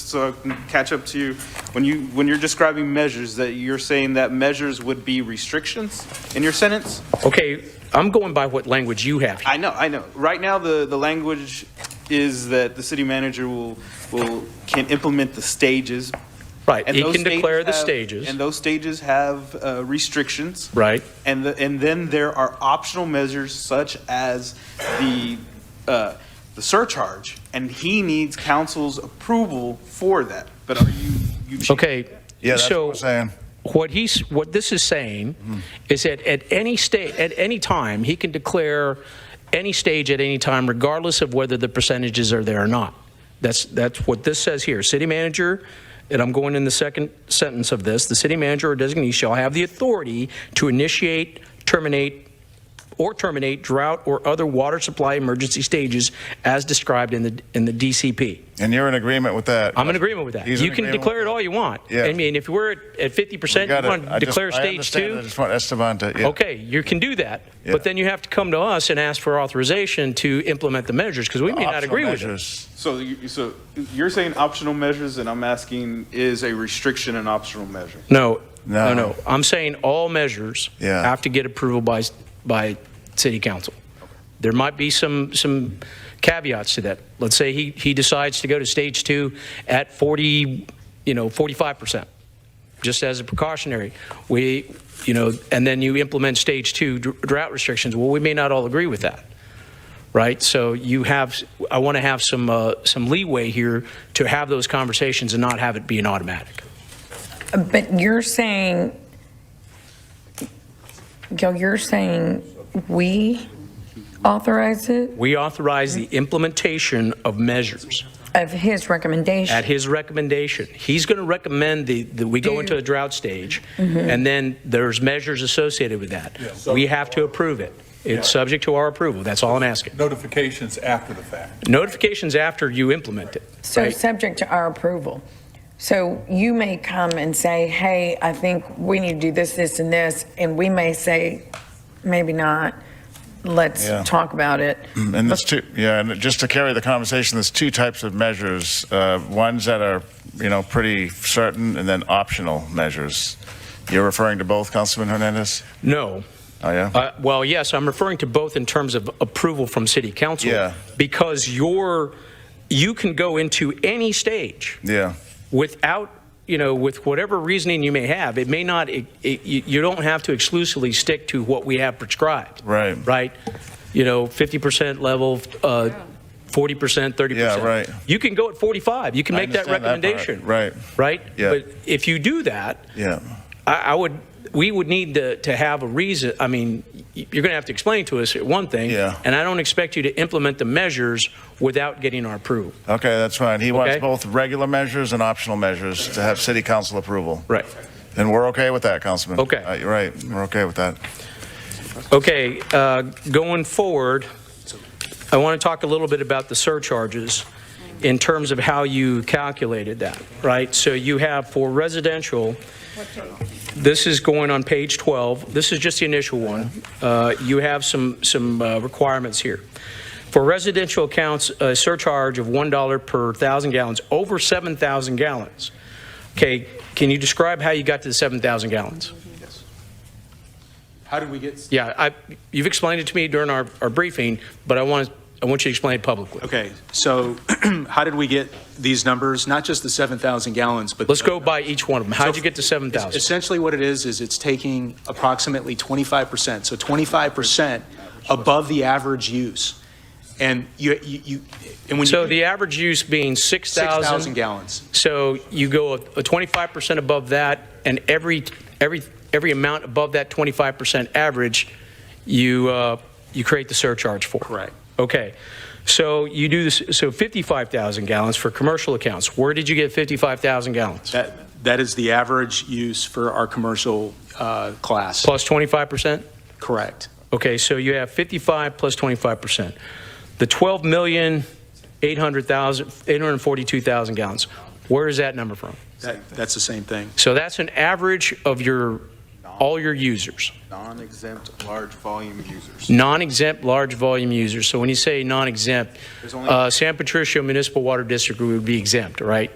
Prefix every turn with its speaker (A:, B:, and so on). A: so I can catch up to you, when you, when you're describing measures, that you're saying that measures would be restrictions in your sentence?
B: Okay, I'm going by what language you have.
A: I know, I know. Right now, the, the language is that the city manager will, will, can implement the stages.
B: Right,
A: and
B: he
A: those
B: can declare the
A: have- And
B: stages,
A: those stages have uh, restrictions.
B: right?
A: And, the, and then there are optional measures such as the, uh, the surcharge, and he needs council's approval for that. But are you, you? changing
B: Okay,
C: Yeah, that's what
B: so
C: I'm saying.
B: what he's, what this is saying is that at any state, at any time, he can declare any stage at any time, regardless of whether the percentages are there or not. That's, that's what this says here. City manager, and I'm going in the second sentence of this, the city manager or designee shall have the authority to initiate, terminate, or terminate drought or other water supply emergency stages as described in the, in the DCP.
C: And you're in agreement with that?
B: I'm in agreement with that.
C: He's in
B: You can
C: agreement
B: declare
C: with
B: it all you want.
C: Yeah.
B: I mean, if we're at- at 50%,
C: Got
B: you
C: it.
B: want to
C: I just-
B: declare
C: I
B: stage
C: understand. I
B: two?
C: just want, that's Devonta, yeah.
B: Okay, you can do that,
C: Yeah.
B: but then you have to come to us and ask for authorization to implement the measures, because we may not
C: Optional
B: agree with it.
C: measures.
A: So, you- so you're saying optional measures, and I'm asking, is a restriction an optional measure?
B: No, no,
C: No.
B: no. I'm saying all measures
C: Yeah.
B: have to get approval by, by city council. There might be some, some caveats to that. Let's say he, he decides to go to stage two at 40, you know, 45%, just as a precautionary. We, you know, and then you implement stage two dr- drought restrictions. Well, we may not all agree with that, right? So you have, I want to have some, uh, some leeway here to have those conversations and not have it be an automatic.
D: But you're saying, Gil, you're saying we authorize it
B: We authorize the implementation of measures
D: of his
B: at
D: recommendation?
B: his recommendation. He's going to recommend the, that we go into a drought stage, and then there's measures associated with that. We have to approve it. It's subject to our approval. That's all I'm asking.
E: notifications after the fact.
B: Notifications after you implement it.
D: So
B: right?
D: subject to our approval. So you may come and say, hey, I think we need to do this, this, and this, and we may say, maybe not. Let's
C: Yeah.
D: talk about it.
C: And there's two, yeah, and just to carry the conversation, there's two types of measures. uh, Ones that are, you know, pretty certain, and then optional measures. You're referring to both, Councilman Hernandez?
B: No.
C: Oh, yeah?
B: Uh, Well, yes, I'm referring to both in terms of approval from city council.
C: Yeah.
B: Because you're, you can go into any stage.
C: Yeah,
B: without, you know, with whatever reasoning you may have, it may not, it, it, you you don't have to exclusively stick to what we have prescribed.
C: Right.
B: Right? You know, 50% level, uh, 40%, 30%.
C: Yeah, right.
B: You can go at 45, you can
C: I
B: make that
C: understand that part,
B: recommendation.
C: right.
B: Right?
C: Yeah.
B: But if you do that,
C: yeah.
B: I, I would, we would need to, to have a reason, I mean, y- you're going to have to explain to us one thing.
C: Yeah.
B: And I don't expect you to implement the measures without getting our approval.
C: Okay, that's fine. He wants
B: Okay.
C: both regular measures and optional measures to have city council approval.
B: Right.
C: And we're okay with that, Councilman?
B: Okay.
C: Uh, you're Right, we're okay with that.
B: Okay, uh, going forward, I want to talk a little bit about the surcharges in terms of how you calculated that, right? So you have for residential, this is going on page 12, this is just the initial one. Uh, You have some, some uh, requirements here. For residential accounts, a surcharge of $1 per 1,000 gallons, over 7,000 gallons. Okay, can you describe how you got to the 7,000 gallons?
A: How did we get?
B: Yeah, I, you've explained it to me during our, our briefing, but I want, I want you to explain it publicly.
E: Okay, so how did we get these numbers? Not just the 7,000 gallons, but.
B: Let's go by each one of them. How'd you get to 7,000?
E: Essentially what it is, is it's taking approximately 25%, so 25% above the average use. And you, you, you- and when you.
B: So the average use being
E: 6,000
B: 6,000.
E: gallons.
B: So you go a 25% above that, and every, every, every amount above that 25% average, you, uh, you create the surcharge for.
E: Correct.
B: Okay. So you do this, so 55,000 gallons for commercial accounts. Where did you get 55,000 gallons?
E: That, that is the average use for our commercial uh, class.
B: Plus 25%?
E: Correct.
B: Okay, so you have 55 plus 25%. The 12 million, 800,000, 842,000 gallons, where is that number from?
E: That, that's the same thing.
B: So that's an average of your, all your users,
A: Non-exempt large volume users.
B: non-exempt large volume users. So when you say non-exempt,
A: There's only-
B: uh, San Patricio Municipal Water District would be exempt, right?